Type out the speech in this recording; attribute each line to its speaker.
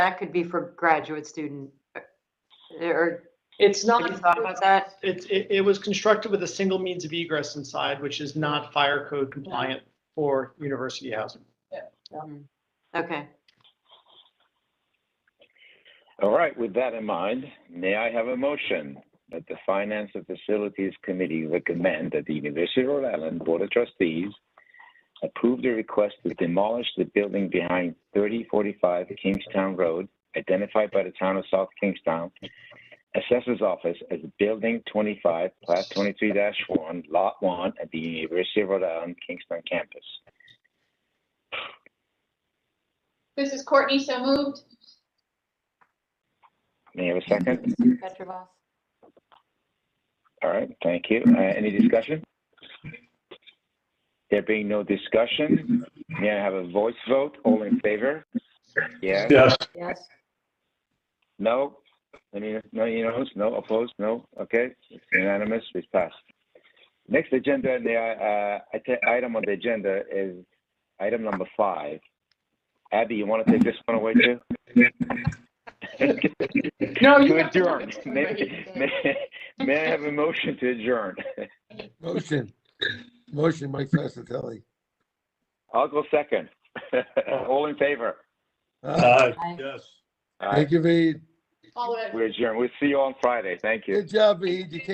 Speaker 1: That could be for graduate student, uh, or,
Speaker 2: It's
Speaker 1: have you
Speaker 2: not,
Speaker 1: thought about that?
Speaker 2: it, it, it was constructed with a single means of egress inside, which is not fire code compliant for university housing.
Speaker 1: Mm, Okay.
Speaker 3: All right, with that in mind, may I have a motion that the Finance and Facilities Committee recommend that the University of Rhode Island Board of Trustees approve the request to demolish the building behind 3045 Kingstown Road, identified by the town of South Kingstown, Assessor's Office as Building 25, Plat 23-1, Lot 1 at the University of Rhode Island Kingston campus.
Speaker 4: This is Courtney, so moved.
Speaker 3: May I have a second?
Speaker 1: Petrovic?
Speaker 3: All right, thank you. Uh, Any discussion? There being no discussion, may I have a voice vote? All in favor? Yeah,
Speaker 5: Yes,
Speaker 1: Yes.
Speaker 3: no? Any, no, you know, no, opposed, no? Okay, it's unanimous, it's passed. Next agenda, the, uh, ite- item on the agenda is item number five. Abby, you want to take this one away too?
Speaker 2: No, you
Speaker 3: To
Speaker 2: have to look
Speaker 3: adjourn.
Speaker 2: at
Speaker 3: May,
Speaker 2: somebody.
Speaker 3: may- may I have a motion to adjourn?
Speaker 6: Motion, motion, Mike Fasatelli.
Speaker 3: I'll go second. All in favor?
Speaker 6: Uh,
Speaker 5: aye,
Speaker 1: Aye.
Speaker 5: yes.
Speaker 3: All right,
Speaker 6: Thank you, Vee.
Speaker 4: All the way.
Speaker 3: We're adjourned. We'll see you on Friday. Thank you.
Speaker 6: Good job, Vee. You